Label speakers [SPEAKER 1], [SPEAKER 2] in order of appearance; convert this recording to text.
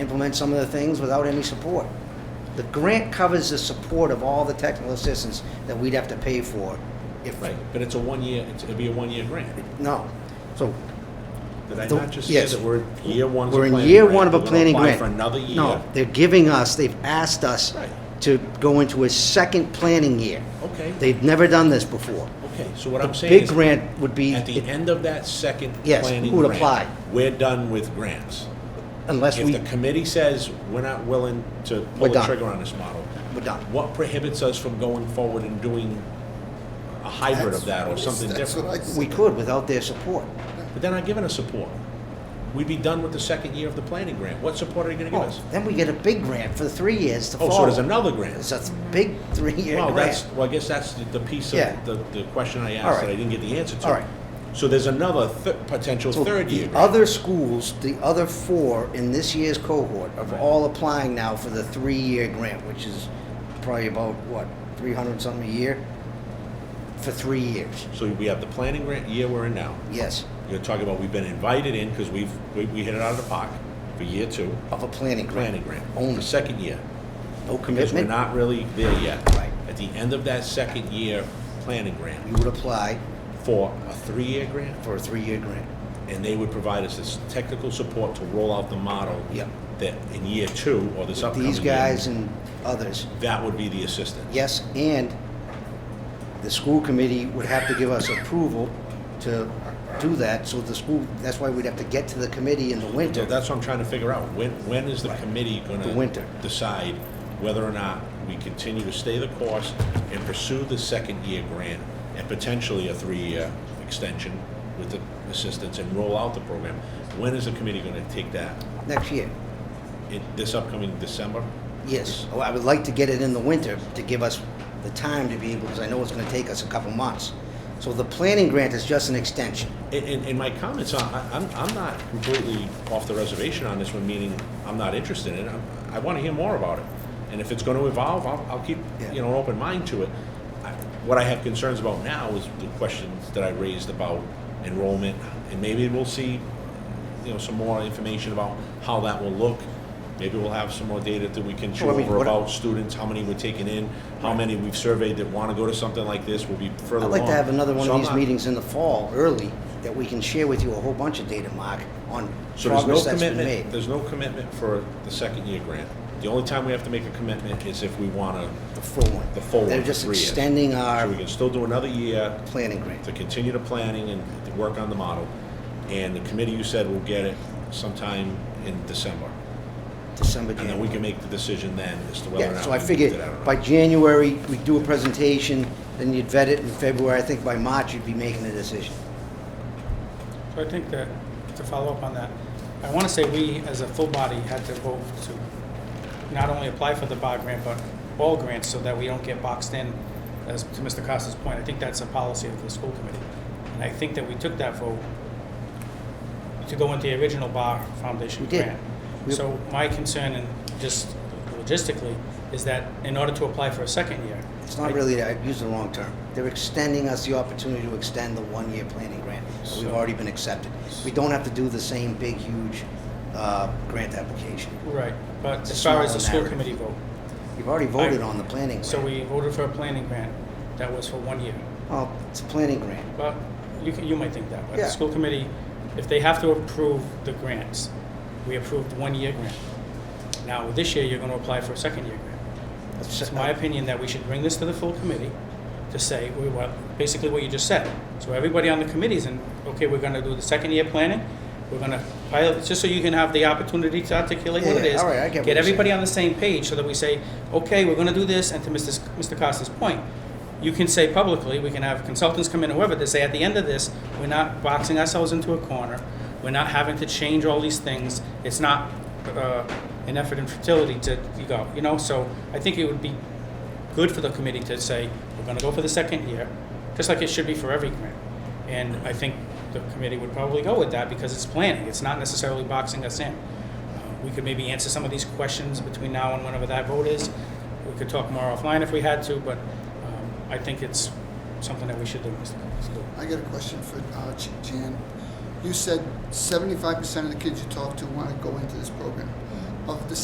[SPEAKER 1] implement some of the things without any support. The grant covers the support of all the technical assistance that we'd have to pay for if,
[SPEAKER 2] Right, but it's a one-year, it's- it'll be a one-year grant.
[SPEAKER 1] no. So
[SPEAKER 2] Did I
[SPEAKER 1] The-
[SPEAKER 2] not just say
[SPEAKER 1] yes.
[SPEAKER 2] that we're in year one of a
[SPEAKER 1] we're
[SPEAKER 2] planning
[SPEAKER 1] in
[SPEAKER 2] grant?
[SPEAKER 1] year one of a
[SPEAKER 2] we're gonna
[SPEAKER 1] planning grant.
[SPEAKER 2] Apply for another year?
[SPEAKER 1] No, they're giving us, they've asked us
[SPEAKER 2] Right.
[SPEAKER 1] to go into a second planning year.
[SPEAKER 2] Okay,
[SPEAKER 1] They've never done this before.
[SPEAKER 2] okay, so what I'm saying
[SPEAKER 1] Big
[SPEAKER 2] is,
[SPEAKER 1] grant would be,
[SPEAKER 2] at the end of that second
[SPEAKER 1] Yes,
[SPEAKER 2] planning
[SPEAKER 1] who would apply?
[SPEAKER 2] grant, we're done with grants.
[SPEAKER 1] unless
[SPEAKER 2] If
[SPEAKER 1] we,
[SPEAKER 2] the committee says we're not willing to
[SPEAKER 1] We're
[SPEAKER 2] pull the
[SPEAKER 1] done.
[SPEAKER 2] trigger on this model,
[SPEAKER 1] we're done.
[SPEAKER 2] what prohibits us from going forward and doing a hybrid of that or something
[SPEAKER 3] That's what
[SPEAKER 2] different?
[SPEAKER 3] I
[SPEAKER 1] We could without their support.
[SPEAKER 2] But they're not giving us support. We'd be done with the second year of the planning grant. What support are you gonna give us?
[SPEAKER 1] Oh, Then we get a big grant for three years to
[SPEAKER 2] Oh,
[SPEAKER 1] follow.
[SPEAKER 2] so there's another grant?
[SPEAKER 1] It's a big three-year
[SPEAKER 2] Well, that's,
[SPEAKER 1] grant.
[SPEAKER 2] well, I guess that's the the piece of
[SPEAKER 1] Yeah.
[SPEAKER 2] the, the question I
[SPEAKER 1] All
[SPEAKER 2] asked that I
[SPEAKER 1] right.
[SPEAKER 2] didn't get the answer to.
[SPEAKER 1] All right.
[SPEAKER 2] So there's another th- potential
[SPEAKER 1] So
[SPEAKER 2] third year.
[SPEAKER 1] The other schools, the other four in this year's cohort are
[SPEAKER 2] Right.
[SPEAKER 1] all applying now for the three-year grant, which is probably about, what, three hundred something a year? For three years,
[SPEAKER 2] So we have the planning grant year we're in now.
[SPEAKER 1] yes,
[SPEAKER 2] You're talking about we've been invited in because we've, we, we hit it out of the park for year two,
[SPEAKER 1] of a planning grant.
[SPEAKER 2] planning grant.
[SPEAKER 1] Only.
[SPEAKER 2] The second year,
[SPEAKER 1] No
[SPEAKER 2] because we're
[SPEAKER 1] commitment,
[SPEAKER 2] not really there yet.
[SPEAKER 1] Right.
[SPEAKER 2] At the end of that second year, planning grant
[SPEAKER 1] you would apply
[SPEAKER 2] for a three-year grant,
[SPEAKER 1] for a three-year grant.
[SPEAKER 2] and they would provide us this technical support to roll out the model.
[SPEAKER 1] Yep.
[SPEAKER 2] That in year two or this upcoming year.
[SPEAKER 1] These guys and others,
[SPEAKER 2] That would be the assistant.
[SPEAKER 1] yes, and the school committee would have to give us approval to do that, so the school, that's why we'd have to get to the committee in the
[SPEAKER 2] So
[SPEAKER 1] winter.
[SPEAKER 2] that's what I'm trying to figure out. When, when is the
[SPEAKER 1] Right.
[SPEAKER 2] committee gonna?
[SPEAKER 1] The winter.
[SPEAKER 2] Decide whether or not we continue to stay the course and pursue the second year grant and potentially a three-year extension with the assistance and roll out the program. When is the committee gonna take that?
[SPEAKER 1] Next year,
[SPEAKER 2] In this upcoming December?
[SPEAKER 1] yes. Oh, I would like to get it in the winter to give us the time to be able, because I know it's gonna take us a couple months. So the planning grant is just an extension.
[SPEAKER 2] In, in, in my comments, I, I- I'm, I'm not completely off the reservation on this one, meaning I'm not interested in it. I'm- I want to hear more about it. And if it's going to evolve, I'll, I'll keep,
[SPEAKER 1] Yeah.
[SPEAKER 2] you know, an open mind to it. I- What I have concerns about now is the questions that I raised about enrollment, and maybe we'll see, you know, some more information about how that will look. Maybe we'll have some more data that we can chew
[SPEAKER 1] Well, I mean,
[SPEAKER 2] over
[SPEAKER 1] what-
[SPEAKER 2] about students, how many we're taking in, how many we've surveyed that want to go to something like this, will be further
[SPEAKER 1] I'd
[SPEAKER 2] along.
[SPEAKER 1] like to have another one
[SPEAKER 2] So
[SPEAKER 1] of
[SPEAKER 2] I'm
[SPEAKER 1] these
[SPEAKER 2] not-
[SPEAKER 1] meetings in the fall, early, that we can share with you a whole bunch of data, Mark, on
[SPEAKER 2] So there's no
[SPEAKER 1] progress that's been made.
[SPEAKER 2] commitment, there's no commitment for the second year grant. The only time we have to make a commitment is if we want to,
[SPEAKER 1] The full one.
[SPEAKER 2] The full one,
[SPEAKER 1] They're just
[SPEAKER 2] three years.
[SPEAKER 1] extending
[SPEAKER 2] so we
[SPEAKER 1] our
[SPEAKER 2] can still do another year
[SPEAKER 1] planning grant.
[SPEAKER 2] to continue the planning and to work on the model. And the committee, you said, will get it sometime in December.
[SPEAKER 1] December,
[SPEAKER 2] And then we
[SPEAKER 1] January.
[SPEAKER 2] can make the decision then as to whether or
[SPEAKER 1] Yeah,
[SPEAKER 2] not.
[SPEAKER 1] so I
[SPEAKER 2] we
[SPEAKER 1] figured
[SPEAKER 2] did that or not.
[SPEAKER 1] by January, we do a presentation, then you'd vet it in February. I think by March, you'd be making a decision.
[SPEAKER 4] So I think that, to follow up on that, I want to say we, as a full body, had to vote to not only apply for the bog grant, but all grants, so that we don't get boxed in, as to Mr. Costa's point. I think that's a policy of the school committee. And I think that we took that vote to go into the original bar foundation
[SPEAKER 1] We did.
[SPEAKER 4] grant.
[SPEAKER 1] We-
[SPEAKER 4] So my concern, and just logistically, is that in order to apply for a second year.
[SPEAKER 1] It's not
[SPEAKER 4] I-
[SPEAKER 1] really, I used the wrong term. They're extending us the opportunity to extend the one-year planning grant. that We've
[SPEAKER 4] So-
[SPEAKER 1] already been accepted. We don't have to do the same big, huge uh, grant application.
[SPEAKER 4] Right, but
[SPEAKER 1] It's
[SPEAKER 4] as far as
[SPEAKER 1] smaller
[SPEAKER 4] the school
[SPEAKER 1] narrative.
[SPEAKER 4] committee vote,
[SPEAKER 1] You've already voted
[SPEAKER 4] I-
[SPEAKER 1] on the planning
[SPEAKER 4] So
[SPEAKER 1] grant.
[SPEAKER 4] we voted for a planning grant that was for one year.
[SPEAKER 1] Well, it's a planning grant.
[SPEAKER 4] But you, can- you might think that, but
[SPEAKER 1] Yeah.
[SPEAKER 4] the school committee, if they have to approve the grants, we approved one-year grant. Now, this year, you're gonna apply for a second-year grant. It's my opinion that we should bring this to the full committee to say, we, what, basically what you just said. So everybody on the committee's in, okay, we're gonna do the second year planning, we're gonna pilot, just so you can have the opportunity to articulate what
[SPEAKER 1] Yeah,
[SPEAKER 4] it
[SPEAKER 1] yeah,
[SPEAKER 4] is.
[SPEAKER 1] all right, I get what you're
[SPEAKER 4] Get everybody on the same page so that we say, okay, we're gonna do this, and to Mr. S- Mr. Costa's point, you can say publicly, we can have consultants come in, whoever, to say, at the end of this, we're not boxing ourselves into a corner, we're not having to change all these things, it's not, uh, an effort in fertility to, you go, you know, so I think it would be good for the committee to say, we're gonna go for the second year, just like it should be for every grant. And I think the committee would probably go with that because it's planning, it's not necessarily boxing us in. Uh, We could maybe answer some of these questions between now and whenever that vote is. We could talk more offline if we had to, but um, I think it's something that we should do, Mr. Costello.
[SPEAKER 3] I got a question for uh, Ch- Jan. You said seventy-five percent of the kids you talk to want to go into this program. of the